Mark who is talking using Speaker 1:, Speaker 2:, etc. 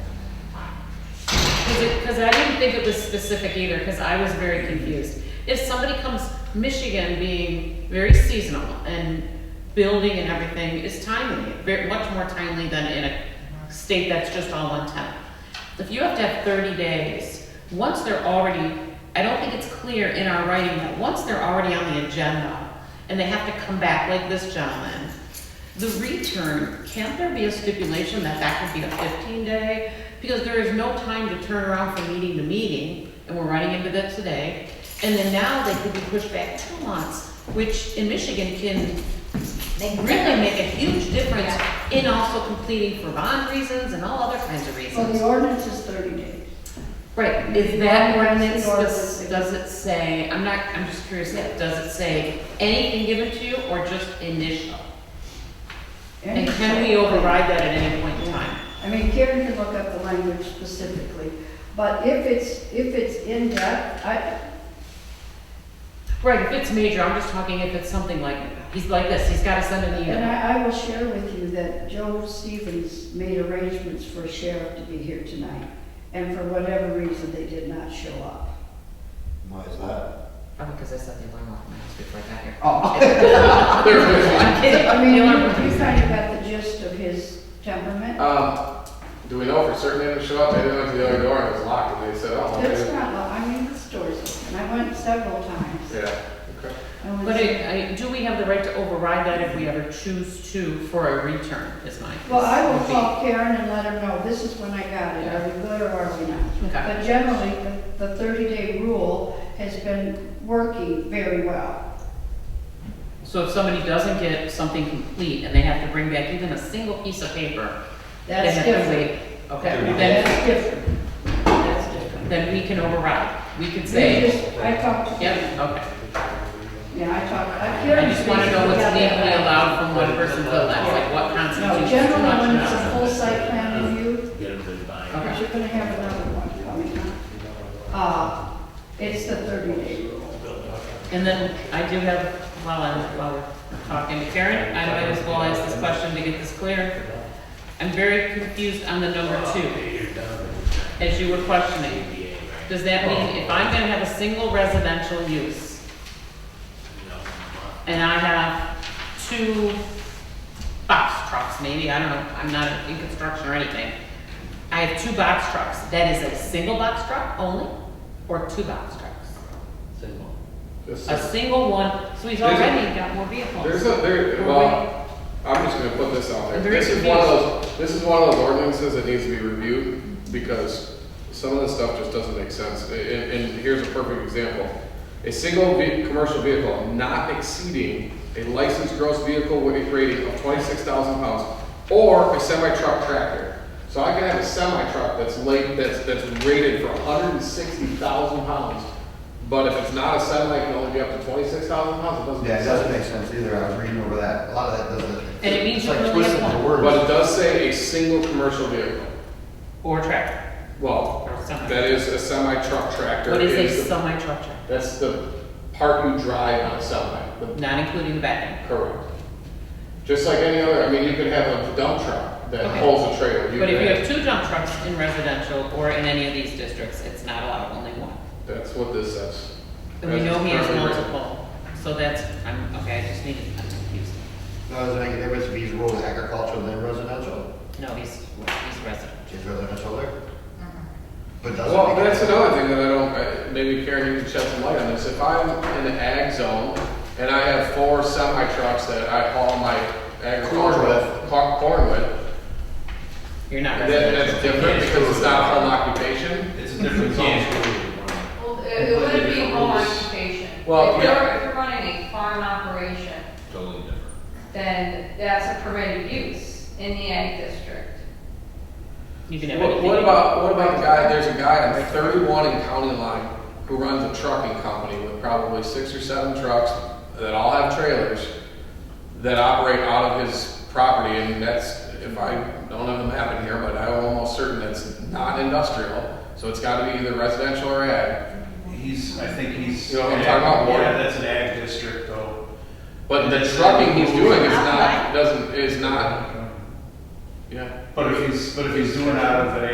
Speaker 1: because I didn't think it was specific either, because I was very confused. If somebody comes, Michigan being very seasonal and building and everything is timely, very, much more timely than in a state that's just all one time. If you have to have thirty days, once they're already, I don't think it's clear in our writing that once they're already on the agenda and they have to come back like this gentleman, the return, can't there be a stipulation that that could be a fifteen day? Because there is no time to turn around from meeting to meeting, and we're running into that today. And then now they could be pushed back two months, which in Michigan can
Speaker 2: They
Speaker 1: really make a huge difference in also completing for bond reasons and all other kinds of
Speaker 2: Well, the
Speaker 1: reasons.
Speaker 2: ordinance is thirty days.
Speaker 1: Right, is that ordinance,
Speaker 2: Or-
Speaker 1: does, does it say, I'm not, I'm just curious, does it say anything given to you or just initial? And can we override that at any point in time?
Speaker 2: I mean, Karen can look up the language specifically, but if it's, if it's in depth, I,
Speaker 1: Right, if it's major, I'm just talking if it's something like, he's like this, he's gotta send an
Speaker 2: and
Speaker 1: email.
Speaker 2: I, I will share with you that Joe Stevens made arrangements for sheriff to be here tonight, and for whatever reason, they did not show up.
Speaker 3: Why is that?
Speaker 1: Probably because Oh, I set the alarm off when I was before I got here.
Speaker 2: So, Oh. I mean,
Speaker 1: The
Speaker 2: you
Speaker 1: alarm
Speaker 2: you kind of got the gist of his temperament.
Speaker 4: Um, do we know for certain they didn't show up? They went to the other door and it was locked and they said, oh,
Speaker 2: That's
Speaker 4: okay.
Speaker 2: not, lo- I mean, the store's open, I went several times.
Speaker 4: Yeah, okay.
Speaker 2: I was-
Speaker 1: But I, I, do we have the right to override that if we ever choose to for a return, is my.
Speaker 2: Well, I will call Karen and let her know, this is when I got it, are we good or are we not?
Speaker 1: Okay,
Speaker 2: But generally, the- the thirty-day rule has been working very well.
Speaker 1: so if somebody doesn't get something complete and they have to bring back even a single piece of paper, they
Speaker 2: That's
Speaker 1: have to
Speaker 2: different.
Speaker 1: wait. Okay, then,
Speaker 2: That's different. That's different.
Speaker 1: then we can override, we can
Speaker 2: We
Speaker 1: say,
Speaker 2: just- I talked to.
Speaker 1: yep, okay.
Speaker 2: Yeah, I talked, I,
Speaker 1: I
Speaker 2: Karen.
Speaker 1: just wanna know what's
Speaker 2: basically got that.
Speaker 1: legally allowed from one person to the next, like what
Speaker 2: No,
Speaker 1: constitutes too much
Speaker 2: generally, when
Speaker 1: and
Speaker 2: it's a
Speaker 1: not.
Speaker 2: full site plan review,
Speaker 5: Get them to buy.
Speaker 1: Okay.
Speaker 2: because you're gonna have another one coming up. Uh, it's the thirty-day rule.
Speaker 1: And then I do have, while I'm, while we're talking to Karen, I might as well ask this question to get this clear. I'm very confused on the number two, as you were questioning. Does that mean if I'm gonna have a single residential use and I have two box trucks maybe, I don't know, I'm not in construction or anything. I have two box trucks, that is a single box truck only or two box trucks?
Speaker 5: Single.
Speaker 4: Just-
Speaker 1: A single one, so he's
Speaker 4: There's a-
Speaker 1: already got more vehicles.
Speaker 4: There's a, there, well, I'm just gonna put this out there.
Speaker 1: I'm very
Speaker 4: This is one of those, this is one of those ordinances that needs to be reviewed because some of this stuff just doesn't make sense. And, and here's a perfect example. A single ve- commercial vehicle not exceeding a licensed gross vehicle weight rating of twenty-six thousand pounds or a semi-truck tractor. So I can have a semi-truck that's late, that's, that's rated for hundred and sixty thousand pounds. But if it's not a semi, it can only be up to twenty-six thousand pounds, it doesn't make
Speaker 3: Yeah, it
Speaker 4: sense.
Speaker 3: doesn't make sense either, I was reading over that, a lot of that doesn't.
Speaker 1: And it means
Speaker 3: it's
Speaker 1: you
Speaker 3: like
Speaker 1: can only have
Speaker 3: twisting the
Speaker 1: one.
Speaker 3: words.
Speaker 4: But it does say a single commercial vehicle.
Speaker 1: Or tractor,
Speaker 4: Well,
Speaker 1: or semi.
Speaker 4: that is a semi-truck tractor.
Speaker 1: What
Speaker 4: It
Speaker 1: is a
Speaker 4: is the-
Speaker 1: semi-truck tractor?
Speaker 4: That's the part you drive on a semi, the-
Speaker 1: Not including the back end.
Speaker 4: correct. Just like any other, I mean, you could have a dump truck that
Speaker 1: Okay.
Speaker 4: pulls a trailer.
Speaker 1: But if you
Speaker 4: could-
Speaker 1: have two dump trucks in residential or in any of these districts, it's not allowed, only one.
Speaker 4: That's what this says.
Speaker 1: And we
Speaker 4: That's
Speaker 1: know he has
Speaker 4: currently written.
Speaker 1: multiple, so that's, I'm, okay, I just needed, I'm confused.
Speaker 3: No, does it make a difference if he's rural agricultural than residential?
Speaker 1: No, he's, he's resident.
Speaker 3: Is residential there?
Speaker 1: Mm-hmm.
Speaker 3: But doesn't.
Speaker 4: Well,
Speaker 3: make a
Speaker 4: that's
Speaker 3: difference.
Speaker 4: another thing that I don't, I- maybe Karen, you can shed some light on this. If I'm in the ag zone and I have four semi trucks that I haul my
Speaker 3: Corn
Speaker 4: agricultural,
Speaker 3: with.
Speaker 4: co- corn with,
Speaker 1: You're not
Speaker 4: That, that's
Speaker 1: residential.
Speaker 4: different because it's not home occupation?
Speaker 5: It's a different game.
Speaker 6: Well, it it wouldn't be home occupation.
Speaker 4: Well,
Speaker 6: If you're-
Speaker 4: yeah.
Speaker 6: If you're running a farm operation,
Speaker 5: Totally different.
Speaker 6: then that's a permitted use in the ag district.
Speaker 1: You can have
Speaker 4: What,
Speaker 1: anything.
Speaker 4: what about, what about the guy, there's a guy on thirty-one in County Line who runs a trucking company with probably six or seven trucks that all have trailers that operate out of his property and that's, if I don't have them happen here, but I'm almost certain that's not industrial. So it's gotta be either residential or ag.
Speaker 7: He's, I think he's.
Speaker 4: You know what I'm talking about, Warren?
Speaker 7: Yeah, that's an ag district though.
Speaker 4: But the trucking he's doing is not, doesn't, is not, yeah.
Speaker 7: But if he's, but if he's doing out of an